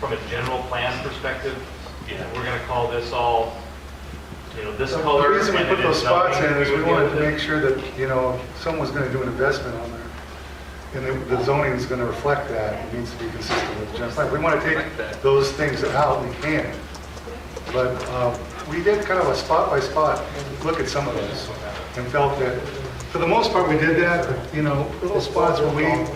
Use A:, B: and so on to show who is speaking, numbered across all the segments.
A: from a general plan perspective, you know, we're gonna call this all, you know, this color.
B: The reason we
A: and
B: put
A: it
B: those
A: is
B: spots in
A: nothing,
B: is we
A: would be able
B: wanted to make sure that, you know, someone's gonna do an investment on there. And the- the zoning is gonna reflect that, it needs to be consistent with the general plan. We wanna take those things out, we can. But uh, we did kind of a spot by spot look at some of those and felt that, for the most part, we did that, but, you know, little spots where we,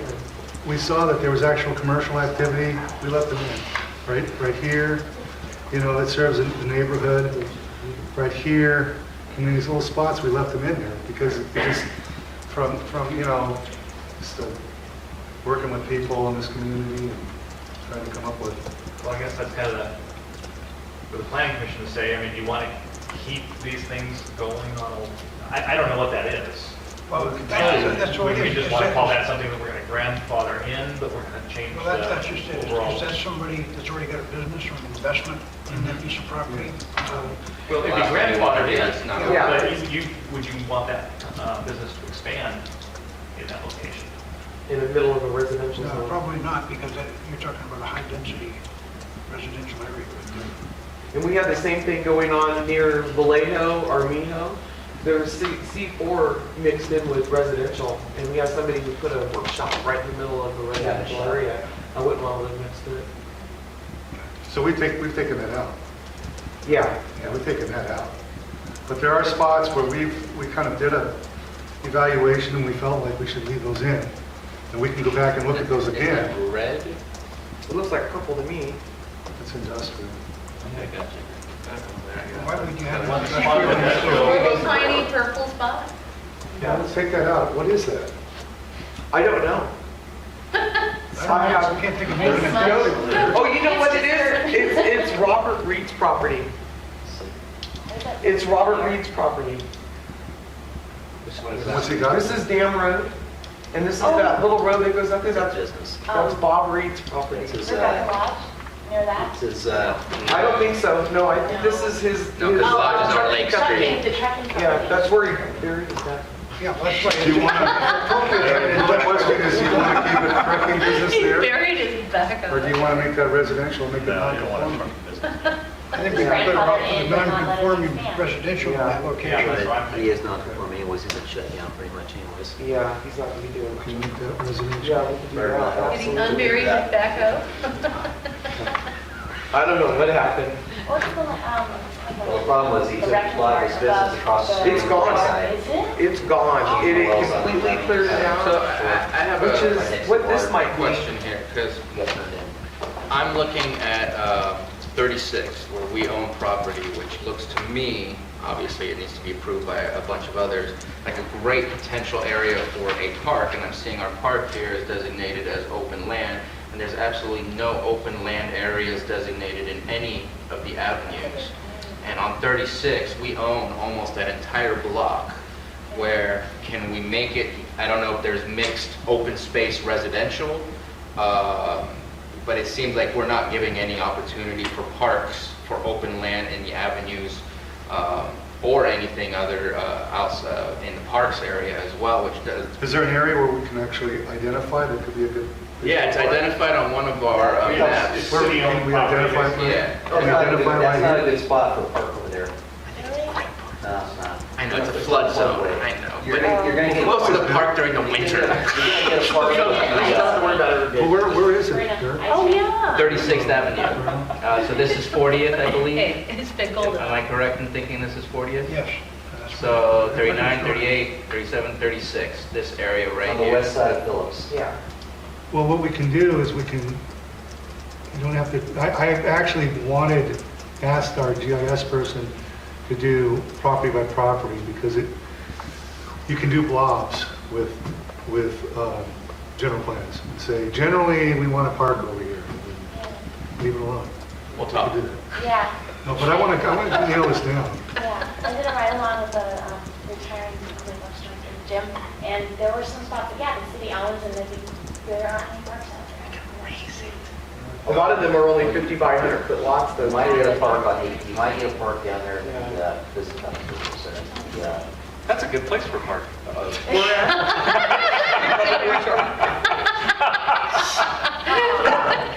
B: we saw that there was actual commercial activity, we left them in, right, right here, you know, it serves the neighborhood, right here, and these little spots, we left them in there because it just, from, from, you know, just uh, working with people in this community and trying to come up with,
A: Well, I guess that's kind of the, for the planning commission to say, I mean, do you want to keep these things going on, a- I, I don't know what that is.
C: Well, that's- that's
A: We
C: what it
A: we
C: is.
A: just want to call that something that we're going to grandfather in, but we're going to change
C: Well, that's, that's just it.
A: the overall.
C: Is that somebody that's already got a business or an investment in that piece of property? Uh,
A: Well, it'd be
D: Well, that's what
A: grandfathered
D: it is,
A: in,
D: not-
A: but you, you- would you want that uh, business to expand in that location?
E: in the middle of a residential
C: No,
E: zone.
C: uh, probably not, because that, you're talking about a high-density residential area.
E: And we have the same thing going on near Vallejo, Armijo. There's C- C4 mixed in with residential, and we have somebody who put a workshop right in the middle of the residential area. I wouldn't want to live next to it.
B: so we take, we've taken that out.
E: Yeah,
B: Yeah, we've taken that out. But there are spots where we've, we kind of did a evaluation and we felt like we should leave those in. And we can go back and look at those
D: Is
B: again.
D: that Red?
E: it looks like purple to me.
B: It's industrial.
D: Okay, gotcha.
C: Why would you have an
A: One
C: investment?
A: spot in
F: Are
A: that,
F: they tiny purple spots?
B: Yeah, let's take that out. What is that?
E: I don't know.
C: I don't know, I can't think of
F: Makes
C: anything.
F: sense.
E: Oh, you know
F: It's
E: what it
F: just
E: is?
F: dirt.
E: It's, it's Robert Reed's property. It's Robert Reed's property.
D: Which one is
B: What's
D: that?
B: he got?
E: This is Dam Road, and this is
F: Oh.
E: that little road that goes up there.
D: That's
E: That's,
D: business.
E: that's Bob Reed's property.
D: This is,
F: Is that
D: uh,
F: garage near that?
D: this is, uh.
E: I don't think so. No, I think this is his.
D: No, 'cause
E: his-
D: Lodge is on Lake
F: Trucking,
D: Street.
F: the trucking company.
E: Yeah, that's where he buried his dad.
C: Yeah, well, that's why.
B: Do you want to, the question is, do you want to keep it trucking business
F: He
B: there?
F: buried his back
B: Or do you want to make that residential, make it
G: No, you don't want to
B: non-conforming?
G: truck the business.
C: I think we better off with the non-conforming residential in that
A: Yeah,
C: location.
A: that's right.
D: But he is not conforming anyways, he's been shut down pretty much anyways.
E: Yeah, he's not gonna be doing
B: Can you
E: much.
B: make that residential?
E: Yeah, we can do
D: Very
E: that.
D: well.
F: Did he
E: absolutely.
F: unbury his backhoe?
E: I don't know what happened.
F: What's the, um...
D: Well, the problem was he took
F: wrecking
D: a lot of his
F: yard
D: business
F: above
D: across the
F: the-
E: street. It's gone.
F: Is it?
E: It's gone. It it
D: Well, so-
E: completely cleared it
H: So
E: out.
H: I I have
E: Which
H: a
E: is what this might be.
H: question here, because
B: Oh,
H: I'm looking at uh, 36, where we own property, which looks to me, obviously it needs to be approved by a bunch of others, like a great potential area for a park, and I'm seeing our park here is designated as open land, and there's absolutely no open land areas designated in any of the avenues. And on 36, we own almost that entire block, where can we make it, I don't know if there's mixed open space residential, um, but it seems like we're not giving any opportunity for parks, for open land in the avenues, um, or anything other uh, else uh, in the parks area as well, which does,
B: Is there an area where we can actually identify that could be a good?
H: yeah, it's identified on one of our uh,
A: Yes.
H: maps.
B: Where we can we identify?
H: Yeah.
B: Can we identify
D: That's not
B: right
D: a
B: here?
D: good spot for a park over there. No, it's not.
H: I know, it's a flood zone, I know,
D: You're
H: but
D: gonna, you're gonna get.
H: close to the park during the winter.
B: Well, where, where is it?
F: Right on-
B: Dirk?
F: Oh, yeah.
H: 36th Avenue. Uh, So this is 40th, I believe.
F: Hey, it's been golden.
H: Am I correct in thinking this is 40th?
C: Yes. that's-
H: So 39, 38, 37, 36, this area right
D: On the west
H: here.
D: side of Phillips.
E: Yeah.
B: Well, what we can do is we can, you don't have to, I, I actually wanted, asked our GIS person to do property by property because it, you can do blobs with, with uh, general plans. Say, generally, we want a park over here. Leave it alone.
H: We'll
B: We
H: talk.
B: can do that.
F: Yeah,
B: No, but I want to, I want to nail this down.
F: yeah. I did a ride along with a um, retired police officer, Jim, and there were some spots, yeah, the city owns and then there aren't any parks out there. Crazy.
E: A lot of them are only 50 by 100 foot lots
D: You
E: though.
D: might get a park on, the- you might get a park down there, and, uh, this is kind of, yeah.
G: That's a good place for park.
E: We're at-